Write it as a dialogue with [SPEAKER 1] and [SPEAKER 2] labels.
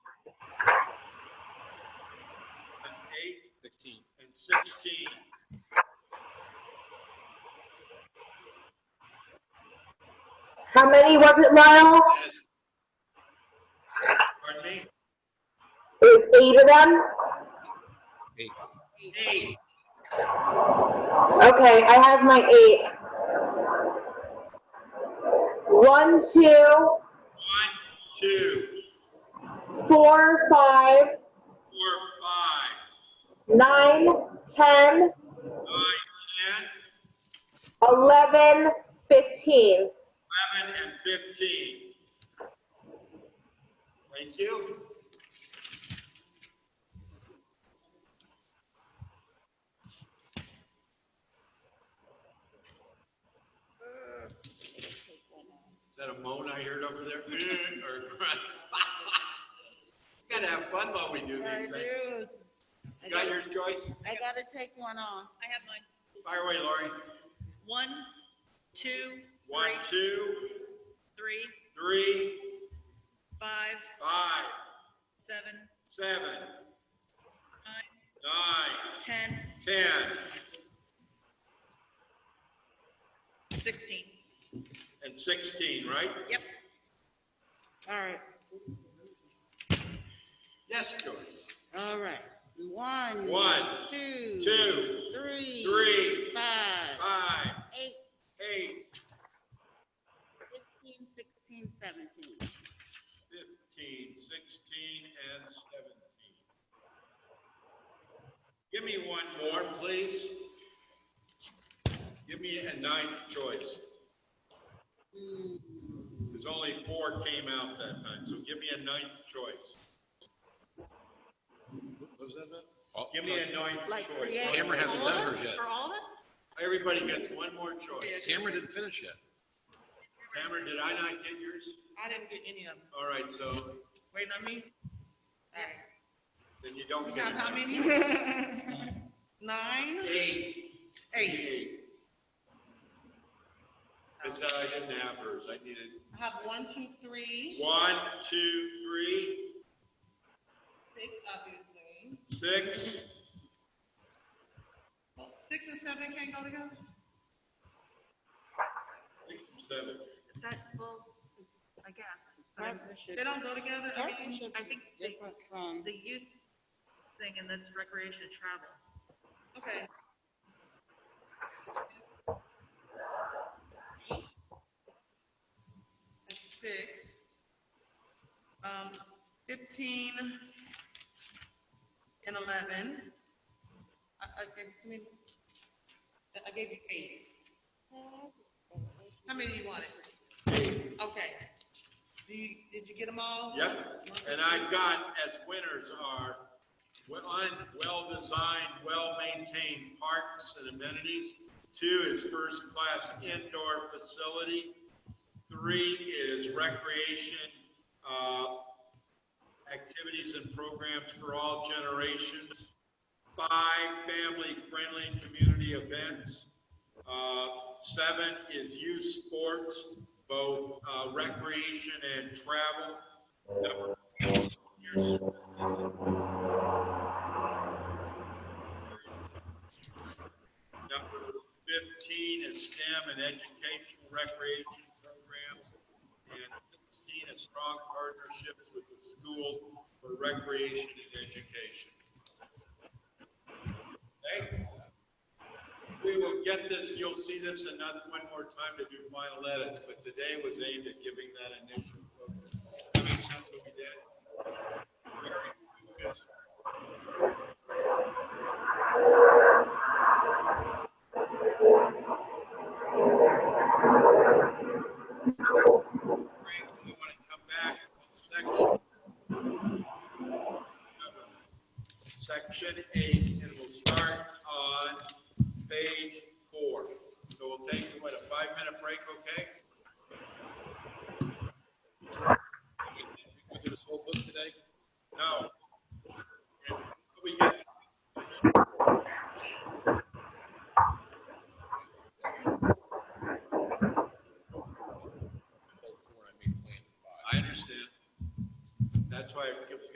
[SPEAKER 1] eight
[SPEAKER 2] Sixteen.
[SPEAKER 1] and sixteen.
[SPEAKER 3] How many was it, Lyle?
[SPEAKER 1] As- Pardon me?
[SPEAKER 3] It was eight of them?
[SPEAKER 1] Eight.
[SPEAKER 3] Okay, I have my eight. One, two,
[SPEAKER 1] One, two,
[SPEAKER 3] four, five,
[SPEAKER 1] four, five,
[SPEAKER 3] nine, ten,
[SPEAKER 1] nine, ten,
[SPEAKER 3] eleven, fifteen.
[SPEAKER 1] eleven, and fifteen. Thank you. Is that a moan I heard over there? Eh, Or Gotta have fun while we do
[SPEAKER 4] I
[SPEAKER 1] these things.
[SPEAKER 4] do. I
[SPEAKER 1] You Got
[SPEAKER 4] gotta-
[SPEAKER 1] your choice?
[SPEAKER 4] I gotta take one off.
[SPEAKER 5] I have mine.
[SPEAKER 1] Fire away, Lori.
[SPEAKER 5] One, two,
[SPEAKER 1] One,
[SPEAKER 5] three,
[SPEAKER 1] two,
[SPEAKER 5] three,
[SPEAKER 1] three,
[SPEAKER 5] five,
[SPEAKER 1] five,
[SPEAKER 5] seven,
[SPEAKER 1] seven,
[SPEAKER 5] nine,
[SPEAKER 1] nine,
[SPEAKER 5] ten,
[SPEAKER 1] ten,
[SPEAKER 5] sixteen.
[SPEAKER 1] and sixteen, right?
[SPEAKER 5] Yep.
[SPEAKER 4] All right,
[SPEAKER 1] Yes, Joyce.
[SPEAKER 4] all right. One.
[SPEAKER 1] One,
[SPEAKER 4] two,
[SPEAKER 1] two,
[SPEAKER 4] three,
[SPEAKER 1] three,
[SPEAKER 4] five,
[SPEAKER 1] Five,
[SPEAKER 4] eight,
[SPEAKER 1] eight,
[SPEAKER 4] 15, 16, 17.
[SPEAKER 1] fifteen, sixteen, and seventeen. Give me one more, please. Give me a ninth choice. There's only four came out that time, so give me a ninth choice. What was that, Beth?
[SPEAKER 2] Oh,
[SPEAKER 1] Give me a ninth
[SPEAKER 4] Like
[SPEAKER 1] choice.
[SPEAKER 4] create-
[SPEAKER 2] Cameron
[SPEAKER 5] For
[SPEAKER 2] hasn't
[SPEAKER 5] all
[SPEAKER 2] done
[SPEAKER 5] of
[SPEAKER 2] hers
[SPEAKER 5] us?
[SPEAKER 2] yet.
[SPEAKER 5] For all of us?
[SPEAKER 1] Everybody gets one more choice.
[SPEAKER 2] Cameron didn't finish yet.
[SPEAKER 1] Cameron, did I not get yours?
[SPEAKER 5] I didn't get any of them.
[SPEAKER 1] All right, so
[SPEAKER 5] Wait, on me? All right.
[SPEAKER 1] then you don't
[SPEAKER 5] You
[SPEAKER 1] get
[SPEAKER 5] got
[SPEAKER 1] a
[SPEAKER 5] how
[SPEAKER 1] ninth.
[SPEAKER 5] many?
[SPEAKER 4] Nine,
[SPEAKER 1] Eight.
[SPEAKER 4] eight.
[SPEAKER 1] That's how I didn't have hers. I needed
[SPEAKER 4] I have one, two, three,
[SPEAKER 1] one, two, three,
[SPEAKER 4] six, obviously.
[SPEAKER 1] six,
[SPEAKER 4] Six and seven can't go together?
[SPEAKER 1] seven.
[SPEAKER 5] That, well, I guess. but I'm-
[SPEAKER 4] Partnership.
[SPEAKER 5] They don't go together. I mean,
[SPEAKER 4] Partnership
[SPEAKER 5] I
[SPEAKER 4] is
[SPEAKER 5] think the,
[SPEAKER 4] different from,
[SPEAKER 5] the youth thing and that's recreation and travel.
[SPEAKER 4] okay. That's Six. Um, fifteen and eleven. I, I gave, I mean, I gave you eight. How many you wanted? Okay. Do you, did you get them all?
[SPEAKER 1] Yep. And I've got, as winners are, well, one, well-designed, well-maintained parks and amenities. Two is first-class indoor facility. Three is recreation, uh, activities and programs for all generations. Five, family-friendly community events. Uh, Seven is youth sports, both uh, recreation and travel. Number eight, senior citizens. Number 15 is STEM and educational recreation programs. And 16 is strong partnerships with the schools for recreation and education. Okay? We will get this, you'll see this enough one more time to do final edits, but today was aimed at giving that initial focus. That makes sense what we did? Very good. Frank, you want to come back one section? section eight, and we'll start on page four. So we'll take, what, a five-minute break, okay?
[SPEAKER 2] We can do this whole book today.
[SPEAKER 1] No,